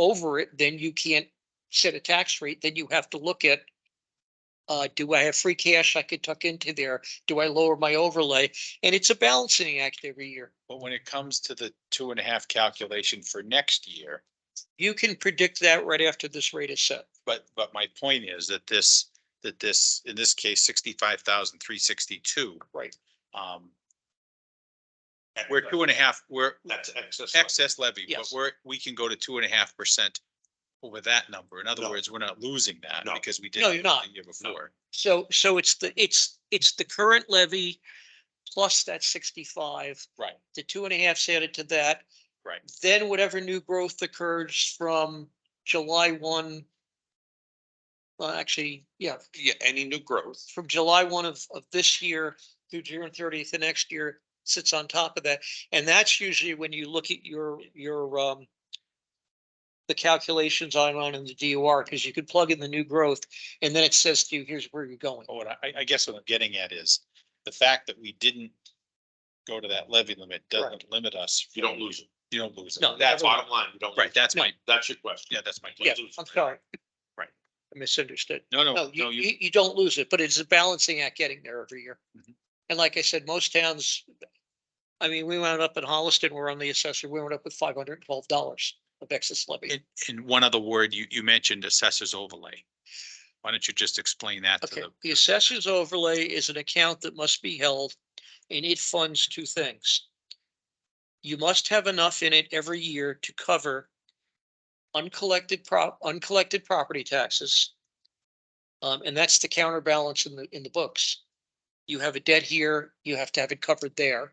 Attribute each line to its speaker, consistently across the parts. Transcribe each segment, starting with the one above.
Speaker 1: over it, then you can't set a tax rate, then you have to look at. Uh, do I have free cash I could tuck into there? Do I lower my overlay? And it's a balancing act every year.
Speaker 2: But when it comes to the two and a half calculation for next year,
Speaker 1: You can predict that right after this rate is set.
Speaker 2: but, but my point is that this, that this, in this case, sixty-five thousand, three sixty-two.
Speaker 1: Right.
Speaker 2: Um, we're two and a half, we're
Speaker 3: That's excess.
Speaker 2: excess levy, but
Speaker 1: Yes.
Speaker 2: we're, we can go to two and a half percent over that number. In other
Speaker 3: No.
Speaker 2: words, we're not losing that
Speaker 3: No.
Speaker 2: because we did.
Speaker 1: No,
Speaker 2: it
Speaker 1: you're not.
Speaker 2: The year before.
Speaker 1: So, so it's the, it's, it's the current levy plus that sixty-five,
Speaker 2: Right.
Speaker 1: the two and a half's added to that.
Speaker 2: Right.
Speaker 1: Then whatever new growth occurs from July one. Well, actually, yeah,
Speaker 3: Yeah, any new growth.
Speaker 1: from July one of, of this year through June thirtieth of next year sits on top of that. And that's usually when you look at your, your, um, the calculations on, on in the DOR, because you could plug in the new growth and then it says to you, here's where you're going.
Speaker 2: But what I, I guess what I'm getting at is the fact that we didn't go to that levy limit doesn't limit us.
Speaker 3: You don't
Speaker 2: from-
Speaker 3: lose it.
Speaker 2: You don't lose it.
Speaker 1: No,
Speaker 2: That's
Speaker 3: That's
Speaker 2: why,
Speaker 3: bottom line. You don't.
Speaker 2: right,
Speaker 3: lose it.
Speaker 2: that's my,
Speaker 3: That's your question.
Speaker 2: yeah, that's my.
Speaker 1: Yeah, I'm sorry.
Speaker 2: Right.
Speaker 1: I misunderstood.
Speaker 2: No, no,
Speaker 1: No,
Speaker 2: no,
Speaker 1: you,
Speaker 2: you,
Speaker 1: you, you don't lose it, but it's a balancing act getting there every year.
Speaker 2: Mhm.
Speaker 1: And like I said, most towns, I mean, we wound up in Holliston, we're on the assessor, we wound up with five hundred and twelve dollars of excess levy.
Speaker 2: in, in one other word, you, you mentioned assessor's overlay. Why don't you just explain that to
Speaker 1: Okay,
Speaker 2: them?
Speaker 1: the assessor's overlay is an account that must be held and it funds two things. You must have enough in it every year to cover uncollected prop, uncollected property taxes. Um, and that's the counterbalance in the, in the books. You have a debt here, you have to have it covered there.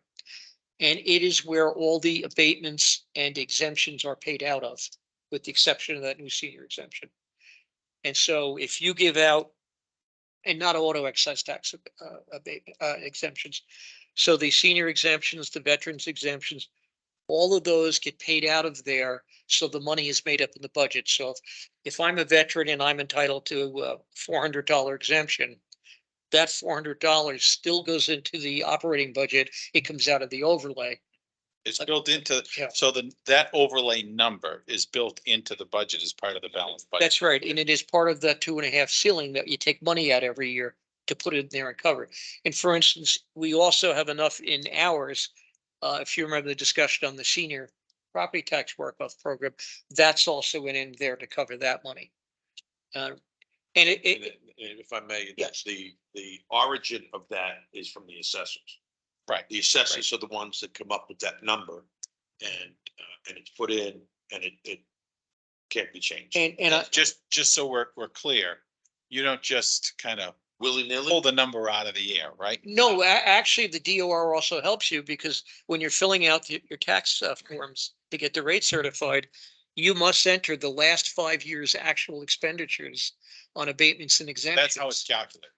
Speaker 1: And it is where all the abatements and exemptions are paid out of, with the exception of that new senior exemption. And so if you give out and not auto excise tax uh, abate- uh, exemptions. So the senior exemptions, the veterans exemptions, all of those get paid out of there. So the money is made up in the budget. So if, if I'm a veteran and I'm entitled to a four hundred dollar exemption, that four hundred dollars still goes into the operating budget. It comes out of the overlay. uh,
Speaker 2: It's built into,
Speaker 1: Yeah.
Speaker 2: so the, that overlay number is built into the budget as part of the balance budget.
Speaker 1: That's right, and it is part of the two and a half ceiling that you take money out every year to put it in there and cover. it. And for instance, we also have enough in hours. Uh, if you remember the discussion on the senior property tax workoff program, that's also in in there to cover that money. Uh, and it,
Speaker 3: And
Speaker 1: it,
Speaker 3: it- and if I may,
Speaker 1: Yes.
Speaker 3: that's the, the origin of that is from the assessors.
Speaker 2: Right.
Speaker 3: The assessors are the ones that come up with that number and, uh, and it's put in and it, it can't be changed.
Speaker 1: and, and I,
Speaker 2: Just, just so we're, we're clear, you don't just kind of
Speaker 3: Willy
Speaker 2: pull
Speaker 3: nilly,
Speaker 2: the number out of the air, right?
Speaker 1: no, a- actually, the DOR also helps you because when you're filling out your your tax uh, forms to get the rate certified, you must enter the last five years' actual expenditures on abatements and exemptions.
Speaker 2: That's how it's calculated.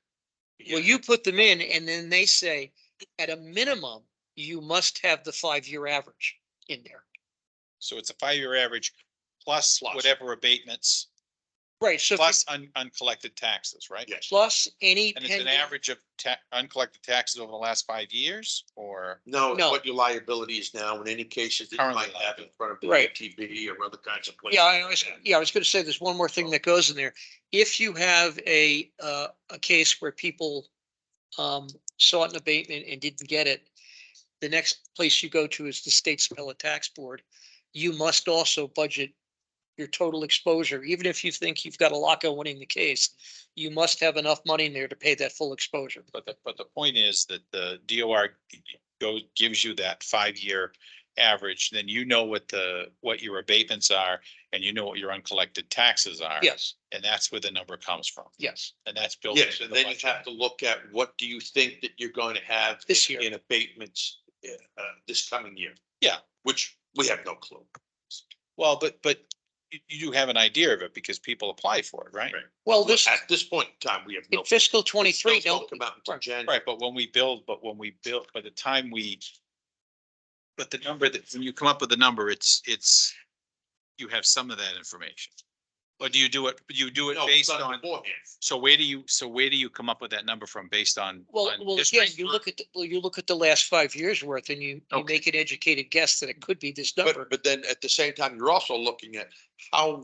Speaker 1: Well, you put them in and then they say, at a minimum, you must have the five-year average in there.
Speaker 2: So it's a five-year average plus
Speaker 3: Plus.
Speaker 2: whatever abatements,
Speaker 1: Right, so if you-
Speaker 2: plus un- uncollected taxes, right?
Speaker 3: yes.
Speaker 1: plus any
Speaker 2: And it's an
Speaker 1: pending,
Speaker 2: average of ta- uncollected taxes over the last five years or?
Speaker 3: No, it's
Speaker 1: No.
Speaker 3: what your liability is now in any cases that you
Speaker 2: Currently
Speaker 3: might have in front of the
Speaker 1: Right.
Speaker 3: ATV or other kinds of places.
Speaker 1: yeah, I was, yeah, I was gonna say, there's one more thing that goes in there. If you have a, uh, a case where people um, sought an abatement and didn't get it, the next place you go to is the state's appellate tax board. You must also budget your total exposure, even if you think you've got a lock on winning the case, you must have enough money in there to pay that full exposure.
Speaker 2: But the, but the point is that the DOR goes, gives you that five-year average, then you know what the, what your abatements are and you know what your uncollected taxes are.
Speaker 1: Yes,
Speaker 2: And that's where the number comes from.
Speaker 1: yes,
Speaker 2: And that's built.
Speaker 3: Yes,
Speaker 2: into
Speaker 3: and
Speaker 2: the
Speaker 3: then you
Speaker 2: budget.
Speaker 3: have to look at what do you think that you're going to have.
Speaker 1: This
Speaker 3: in-
Speaker 1: year.
Speaker 3: In abatements, uh, this coming year.
Speaker 2: Yeah.
Speaker 3: Which we have no clue.
Speaker 2: Well, but, but you, you do have an idea of it because people apply for it, right?
Speaker 3: Right.
Speaker 1: well, this,
Speaker 3: At this point in time, we have no.
Speaker 1: in fiscal
Speaker 3: Those
Speaker 1: twenty-three, no,
Speaker 3: Don't come out until
Speaker 1: Right.
Speaker 3: January.
Speaker 2: Right, but when we build, but when we build, by the time we. But the number that, when you come up with the number, it's, it's, you have some of that information. Or do you do it, you do it
Speaker 3: No, it's
Speaker 2: based
Speaker 3: done
Speaker 2: on,
Speaker 3: beforehand.
Speaker 2: so where do you, so where do you come up with that number from based on?
Speaker 1: well,
Speaker 2: on
Speaker 1: well,
Speaker 2: history?
Speaker 1: again, you look at, the- well, you look at the last five years' worth and you, you
Speaker 2: Okay.
Speaker 1: make an educated guess that it could be this number.
Speaker 3: But, but then at the same time, you're also looking at how